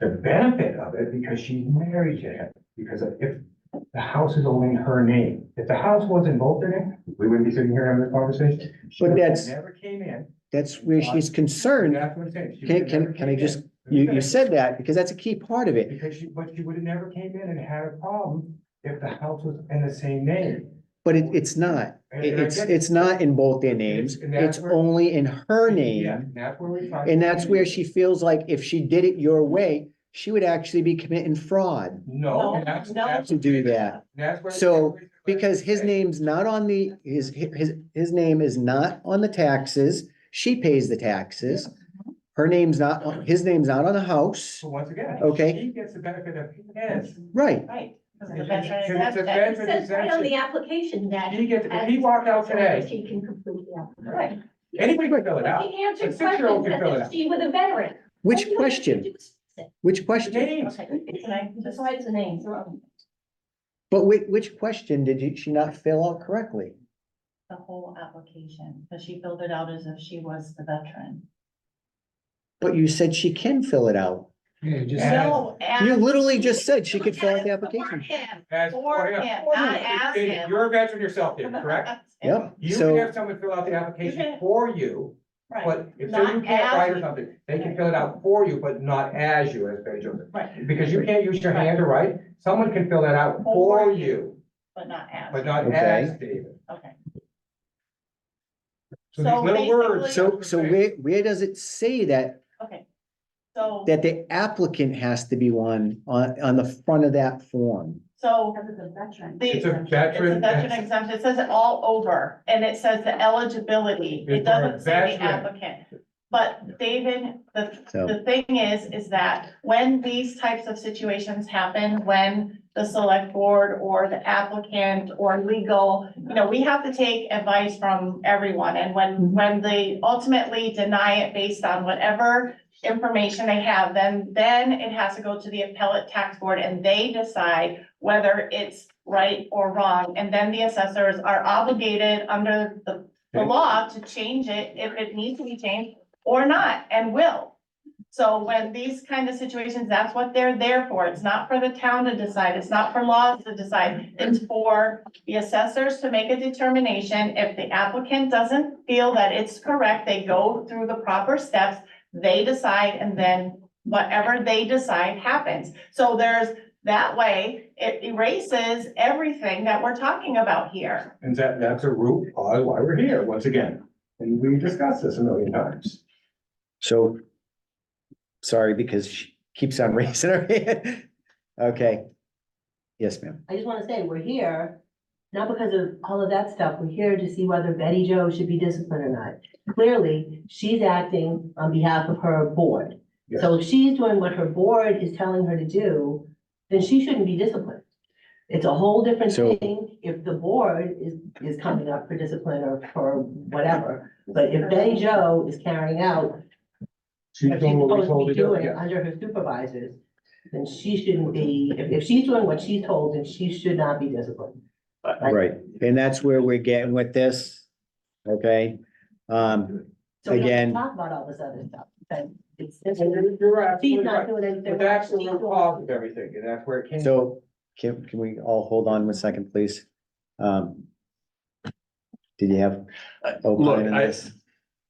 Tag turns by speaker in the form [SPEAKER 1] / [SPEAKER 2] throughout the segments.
[SPEAKER 1] the benefit of it because she's married to him. Because if the house is only in her name, if the house was in both their name, we wouldn't be sitting here having this conversation. She
[SPEAKER 2] But that's-
[SPEAKER 1] Never came in.
[SPEAKER 2] That's where she's concerned.
[SPEAKER 1] That's what I'm saying. She
[SPEAKER 2] Can-
[SPEAKER 1] would've
[SPEAKER 2] can-
[SPEAKER 1] never
[SPEAKER 2] can
[SPEAKER 1] came
[SPEAKER 2] I just-
[SPEAKER 1] in.
[SPEAKER 2] You, you said that because that's a key part of it.
[SPEAKER 1] Because she, but she would have never came in and had a problem if the house was in the same name.
[SPEAKER 2] But it, it's not.
[SPEAKER 1] And-
[SPEAKER 2] It-
[SPEAKER 1] and I
[SPEAKER 2] It's,
[SPEAKER 1] get-
[SPEAKER 2] it's not in both their names.
[SPEAKER 1] And that's
[SPEAKER 2] It's
[SPEAKER 1] where-
[SPEAKER 2] only in her
[SPEAKER 1] Yeah,
[SPEAKER 2] name.
[SPEAKER 1] and that's where we find.
[SPEAKER 2] And that's where she feels like if she did it your way, she would actually be committing fraud
[SPEAKER 1] No, and
[SPEAKER 3] No,
[SPEAKER 1] that's,
[SPEAKER 3] no.
[SPEAKER 1] that's,
[SPEAKER 2] to do that.
[SPEAKER 1] that's where.
[SPEAKER 2] So, Because his name's not on the, his, his, his name is not on the taxes. She pays the taxes. Her name's not, on- his name's not on the house.
[SPEAKER 1] So once again.
[SPEAKER 2] Okay.
[SPEAKER 1] She gets the benefit of his.
[SPEAKER 2] Right.
[SPEAKER 3] Right. because of the
[SPEAKER 1] Because
[SPEAKER 3] veteran
[SPEAKER 1] it's a
[SPEAKER 3] exemption.
[SPEAKER 4] It says right on the application that.
[SPEAKER 1] He gets, if he walked out today,
[SPEAKER 4] She can complete the application.
[SPEAKER 3] Right.
[SPEAKER 1] anybody can fill
[SPEAKER 4] She
[SPEAKER 1] it out.
[SPEAKER 4] answered
[SPEAKER 1] six-year-old can
[SPEAKER 4] questions
[SPEAKER 1] fill it
[SPEAKER 4] as if
[SPEAKER 1] out.
[SPEAKER 4] she was a veteran.
[SPEAKER 2] Which
[SPEAKER 4] What do you have to
[SPEAKER 2] question?
[SPEAKER 4] do?
[SPEAKER 2] Which question?
[SPEAKER 1] James,
[SPEAKER 4] Okay, can I- Besides the names.
[SPEAKER 2] But which, which question did you- she not fill out correctly?
[SPEAKER 3] The whole application, because she filled it out as if she was the veteran.
[SPEAKER 2] But you said she can fill it out.
[SPEAKER 1] as,
[SPEAKER 2] You literally just said she could fill out the application.
[SPEAKER 1] as,
[SPEAKER 3] For
[SPEAKER 1] oh, yeah.
[SPEAKER 3] him, not ask
[SPEAKER 1] If- if
[SPEAKER 3] him.
[SPEAKER 1] You're a veteran yourself, Dave, correct?
[SPEAKER 2] Yep.
[SPEAKER 1] You
[SPEAKER 2] So-
[SPEAKER 1] can have someone fill out the application
[SPEAKER 3] can-
[SPEAKER 1] for you,
[SPEAKER 3] Right,
[SPEAKER 1] but if say you
[SPEAKER 3] Not
[SPEAKER 1] can't write
[SPEAKER 3] as
[SPEAKER 1] or
[SPEAKER 3] you.
[SPEAKER 1] something, they can fill it out for you, but not as you, as Betty Joseph.
[SPEAKER 3] right,
[SPEAKER 1] Because you can't use your hand to write, someone can fill that out for
[SPEAKER 3] For
[SPEAKER 1] you,
[SPEAKER 3] but not as.
[SPEAKER 1] but not
[SPEAKER 2] Okay.
[SPEAKER 1] as David.
[SPEAKER 3] Okay.
[SPEAKER 1] So these
[SPEAKER 3] So
[SPEAKER 1] little words.
[SPEAKER 2] So, so where, where does it say that,
[SPEAKER 3] Okay. So,
[SPEAKER 2] that the applicant has to be one on, on the front of that form?
[SPEAKER 3] so
[SPEAKER 4] Because of the veteran.
[SPEAKER 3] the.
[SPEAKER 1] It's a
[SPEAKER 3] It's a
[SPEAKER 1] veteran.
[SPEAKER 3] veteran exemption, it says it all over, and it says the eligibility,
[SPEAKER 1] It's
[SPEAKER 3] it doesn't say the
[SPEAKER 1] for a veteran.
[SPEAKER 3] applicant. But David, the,
[SPEAKER 2] So-
[SPEAKER 3] the thing is, is that when these types of situations happen, when the select board or the applicant or legal, you know, we have to take advice from everyone, and when, when they ultimately deny it based on whatever information they have, then, then it has to go to the appellate tax board, and they decide whether it's right or wrong, and then the assessors are obligated under the, the
[SPEAKER 1] Okay.
[SPEAKER 3] law to change it if it needs to be changed or not, and will. So when these kind of situations, that's what they're there for, it's not for the town to decide, it's not for laws to decide, it's for the assessors to make a determination, if the applicant doesn't feel that it's correct, they go through the proper steps, they decide, and then whatever they decide happens. So there's that way, it erases everything that we're talking about here.
[SPEAKER 1] And that, that's a root cause why we're here, once again. And we discussed this a million times.
[SPEAKER 2] So, sorry, because she keeps on raising her hand. Okay. Yes, ma'am.
[SPEAKER 4] I just want to say, we're here, not because of all of that stuff, we're here to see whether Betty Jo should be disciplined or not. Clearly, she's acting on behalf of her board. So if she's doing what her board is telling her to do, then she shouldn't be disciplined. It's a whole different
[SPEAKER 2] So-
[SPEAKER 4] thing if the board is, is coming up for discipline or for whatever. But if Betty Jo is carrying out,
[SPEAKER 1] She's
[SPEAKER 4] if she's
[SPEAKER 1] doing what we
[SPEAKER 4] supposed
[SPEAKER 1] told her
[SPEAKER 4] to be
[SPEAKER 1] to do,
[SPEAKER 4] doing
[SPEAKER 1] yeah.
[SPEAKER 4] under her supervisors, then she shouldn't be, if, if she's doing what she's told, then she should not be disciplined.
[SPEAKER 2] Right. And that's where we're getting with this. Okay. Um,
[SPEAKER 4] So we don't have
[SPEAKER 2] Again-
[SPEAKER 4] to talk about all this other stuff, but it's,
[SPEAKER 1] And You're you're absolutely
[SPEAKER 4] she's not
[SPEAKER 1] right.
[SPEAKER 4] doing anything.
[SPEAKER 1] But
[SPEAKER 4] wrong.
[SPEAKER 1] that's the
[SPEAKER 4] She's
[SPEAKER 1] root
[SPEAKER 4] doing-
[SPEAKER 1] cause of everything, and that's where it came.
[SPEAKER 2] so can, can we all hold on one second, please? Um, did you have?
[SPEAKER 5] Uh,
[SPEAKER 2] opine
[SPEAKER 5] Look,
[SPEAKER 2] on
[SPEAKER 5] I,
[SPEAKER 2] this?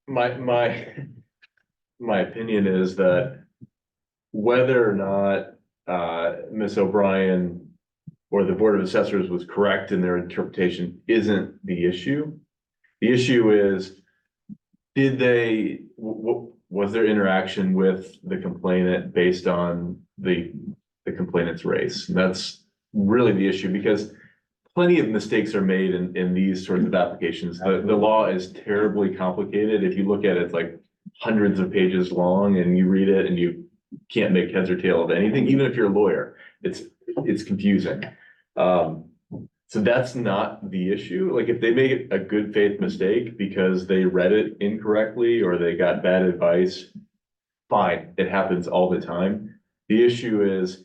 [SPEAKER 5] my, my, my opinion is that whether or not, uh, Ms. O'Brien or the Board of Assessors was correct in their interpretation isn't the issue. The issue is, did they, w- w- was their interaction with the complainant based on the, the complainant's race? And that's really the issue because plenty of mistakes are made in, in these sorts of applications. The, the law is terribly complicated. If you look at it, it's like hundreds of pages long and you read it and you can't make heads or tail of anything, even if you're a lawyer. It's, it's confusing. Um, so that's not the issue. Like if they make a good faith mistake because they read it incorrectly or they got bad advice, fine, it happens all the time. The issue is,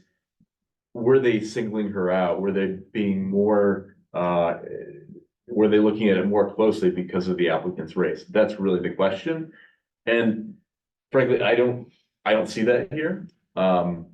[SPEAKER 5] were they singling her out? Were they being more, uh, were they looking at it more closely because of the applicant's race? That's really the question. And frankly, I don't, I don't see that here. Um,